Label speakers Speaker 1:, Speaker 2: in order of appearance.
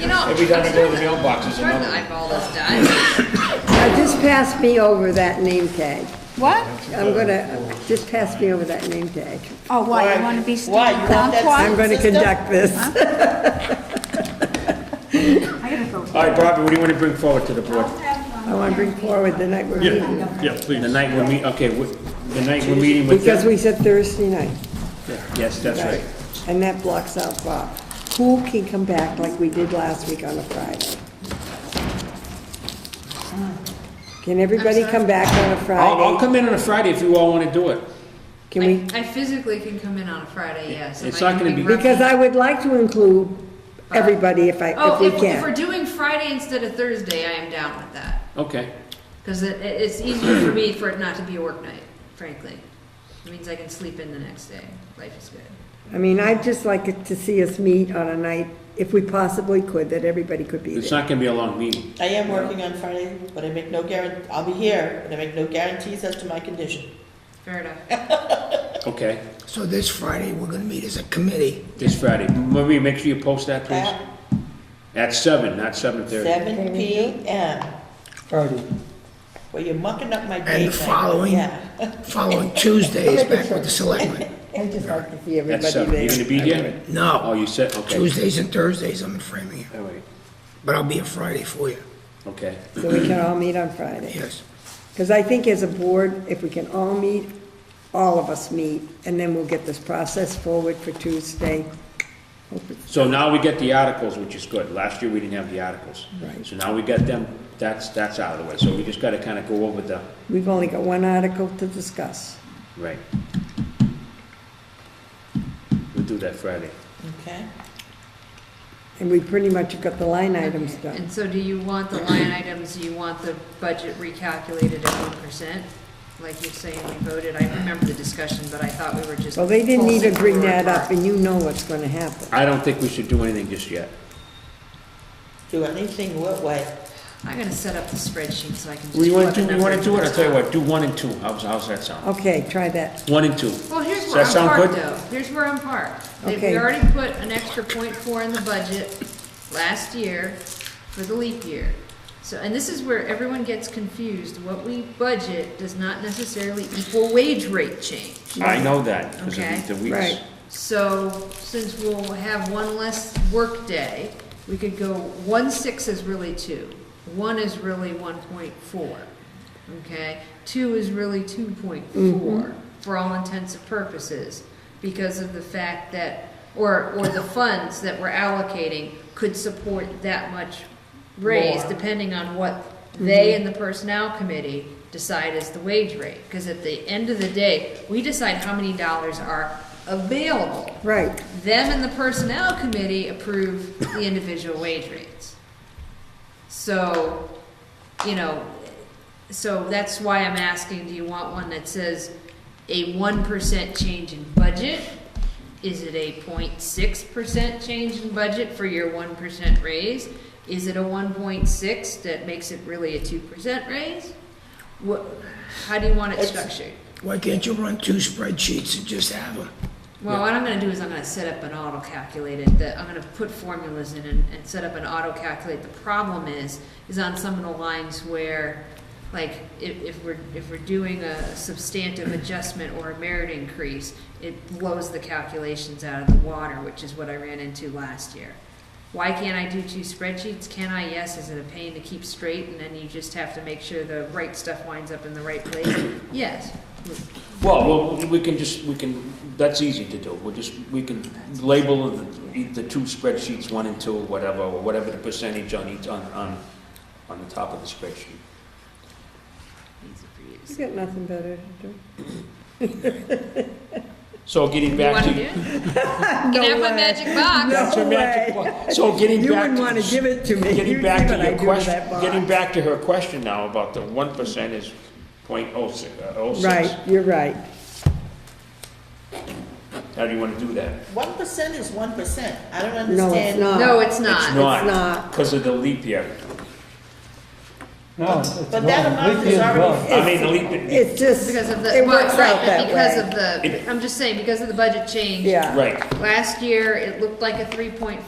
Speaker 1: You know,
Speaker 2: Every time I
Speaker 1: I'm
Speaker 2: go to the
Speaker 1: starting
Speaker 2: mailbox, it's
Speaker 1: I'm starting to
Speaker 2: another.
Speaker 1: eyeball this, Dad.
Speaker 3: Now, just pass me over that name tag.
Speaker 4: What?
Speaker 3: I'm gonna, just pass me over that name tag.
Speaker 4: Oh, what, you want to be sticking
Speaker 5: Why, you want that
Speaker 3: I'm
Speaker 4: clockwise?
Speaker 3: gonna conduct this.
Speaker 4: I gotta go.
Speaker 2: All right, Barbara, what do you want to bring forward to the board?
Speaker 3: I wanna bring forward the night we're meeting,
Speaker 2: Yeah, please. The night we're meet, okay, we- the night we're meeting with
Speaker 3: because
Speaker 2: them?
Speaker 3: we said Thursday night.
Speaker 2: Yes, that's right.
Speaker 3: And that blocks out Bob. Who can come back like we did last week on a Friday? Can everybody come back on a
Speaker 2: I'll, I'll
Speaker 3: Friday?
Speaker 2: come in on a Friday if you all want to do it.
Speaker 3: Can we,
Speaker 1: I I physically can come in on a Friday, yes. and
Speaker 2: It's
Speaker 1: I
Speaker 2: not
Speaker 1: can
Speaker 2: gonna be-
Speaker 1: roughly-
Speaker 3: because I would like to include everybody if I, if
Speaker 1: Oh,
Speaker 3: we
Speaker 1: if, if we're
Speaker 3: can.
Speaker 1: doing Friday instead of Thursday, I am down with that.
Speaker 2: Okay.
Speaker 1: Because it, it- it's easier for me for it not to be a work night, frankly. It means I can sleep in the next day. Life is good.
Speaker 3: I mean, I'd just like it to see us meet on a night, if we possibly could, that everybody could be
Speaker 2: It's
Speaker 3: there.
Speaker 2: not going to be a long meeting.
Speaker 5: I am working on Friday, but I make no guarant, I'll be here, but I make no guarantees as to my condition.
Speaker 1: Fair enough.
Speaker 2: Okay,
Speaker 6: So this Friday, we're gonna meet as a committee.
Speaker 2: this Friday. Maria, make sure you post that, please.
Speaker 5: At
Speaker 2: At seven, not seven thirty.
Speaker 5: seven P M. Well, you're mucking up my day.
Speaker 6: And the
Speaker 5: night.
Speaker 6: following-
Speaker 5: Yeah.
Speaker 6: Following Tuesday is back with the selectmen.
Speaker 3: I'd just like to see
Speaker 2: At
Speaker 3: everybody
Speaker 2: seven. You
Speaker 3: there.
Speaker 2: going to be here? Oh,
Speaker 6: No,
Speaker 2: you said, okay.
Speaker 6: Tuesdays and Thursdays, I'm in Framingham,
Speaker 2: All right,
Speaker 6: but I'll be a Friday for you,
Speaker 2: okay.
Speaker 3: So we can all meet on Friday.
Speaker 6: yes.
Speaker 3: Because I think as a board, if we can all meet, all of us meet, and then we'll get this process forward for Tuesday. Hope it's
Speaker 2: So now we get the articles, which is good. Last year, we didn't have the articles.
Speaker 3: Right.
Speaker 2: So now we got them, that's, that's out of the way. So we just got to kind of go over the,
Speaker 3: We've only got one article to discuss.
Speaker 2: right. We'll do that Friday.
Speaker 5: Okay.
Speaker 3: And we pretty much have got the line items done.
Speaker 1: And so do you want the line items, do you want the budget recalculated at one percent? Like you're saying we voted, I remember the discussion, but I thought we were just.
Speaker 3: Well, they didn't even bring
Speaker 1: pulsing
Speaker 3: that
Speaker 1: forward.
Speaker 3: up, and you know what's gonna happen.
Speaker 2: I don't think we should do anything just yet.
Speaker 5: Do anything what way?
Speaker 1: I'm gonna set up the spreadsheet so I can just.
Speaker 2: We want
Speaker 1: plug
Speaker 2: to
Speaker 1: the
Speaker 2: do, we want to
Speaker 1: numbers
Speaker 2: do it,
Speaker 1: in.
Speaker 2: I'll tell you what, do one and two. How's, how's that sound?
Speaker 3: Okay, try that.
Speaker 2: One and two.
Speaker 1: Well, here's
Speaker 2: Does
Speaker 1: where
Speaker 2: that
Speaker 1: I'm
Speaker 2: sound
Speaker 1: parked
Speaker 2: good?
Speaker 1: though, here's where I'm parked. They-
Speaker 3: Okay.
Speaker 1: We already put an extra point four in the budget last year for the leap year. So, and this is where everyone gets confused, what we budget does not necessarily equal wage rate change.
Speaker 2: I know that, because
Speaker 1: Okay.
Speaker 2: of the weeks.
Speaker 3: Right.
Speaker 1: So, since we'll have one less workday, we could go, one six is really two, one is really one point four, okay? Two is really two point four, for all intents and purposes, because of the fact that, or, or the funds that we're allocating could support that much raise, depending on what they and the personnel committee decide is the wage rate. Because at the end of the day, we decide how many dollars are available.
Speaker 3: Right,
Speaker 1: Them and the personnel committee approve the individual wage rates. So, you know, so that's why I'm asking, do you want one that says a one percent change in budget? Is it a 06 percent change in budget for your one percent raise? Is it a one point six that makes it really a two percent raise? What, how do you want it
Speaker 5: It's-
Speaker 1: structured?
Speaker 6: Why can't you run two spreadsheets and just have them?
Speaker 1: Well, what I'm gonna do is I'm gonna set up an auto calculated, that, I'm gonna put formulas in and, and set up an auto calculate. The problem is, is on some of the lines where, like, if, if we're, if we're doing a substantive adjustment or a merit increase, it blows the calculations out of the water, which is what I ran into last year. Why can't I do two spreadsheets? Can I? Yes. Is it a pain to keep straight? And then you just have to make sure the right stuff winds up in the right place? Yes.
Speaker 2: Well, well, we can just, we can, that's easy to do. We'll just, we can label the, the two spreadsheets, one and two, whatever, or whatever the percentage on each, on, on, on the top of the spreadsheet.
Speaker 1: Easy for you to
Speaker 3: you
Speaker 1: say.
Speaker 3: got nothing better to do.
Speaker 2: So getting
Speaker 1: You
Speaker 2: back
Speaker 1: wanna
Speaker 2: to.
Speaker 1: do it?
Speaker 3: No
Speaker 1: Can I have my
Speaker 3: way.
Speaker 1: magic box?
Speaker 2: That's your
Speaker 3: No
Speaker 2: magic
Speaker 3: way.
Speaker 2: wand. So getting back.
Speaker 3: You wouldn't wanna give it to me.
Speaker 2: Getting
Speaker 3: You'd
Speaker 2: back
Speaker 3: see
Speaker 2: to
Speaker 3: what I
Speaker 2: your
Speaker 3: do with
Speaker 2: question,
Speaker 3: that box.
Speaker 2: getting back to her question now about the one percent is point oh six, oh six.
Speaker 3: Right, you're right.
Speaker 2: How do you wanna do
Speaker 3: Uh,
Speaker 2: that?
Speaker 5: One percent is one percent. I don't
Speaker 3: No, it's
Speaker 5: understand.
Speaker 3: not.
Speaker 1: No, it's not.
Speaker 2: Not,
Speaker 3: not.
Speaker 2: Because of the leap year.
Speaker 7: No, it's wrong.
Speaker 5: But that amount is already,
Speaker 2: I mean, the leap, year-
Speaker 3: It's just,
Speaker 1: Because of the,
Speaker 3: it
Speaker 1: well,
Speaker 3: works out
Speaker 1: right,
Speaker 3: that
Speaker 1: because
Speaker 3: way.
Speaker 1: of the, I'm just saying, because of the budget change.
Speaker 3: Yeah.
Speaker 2: right.
Speaker 1: Last year, it looked like a three point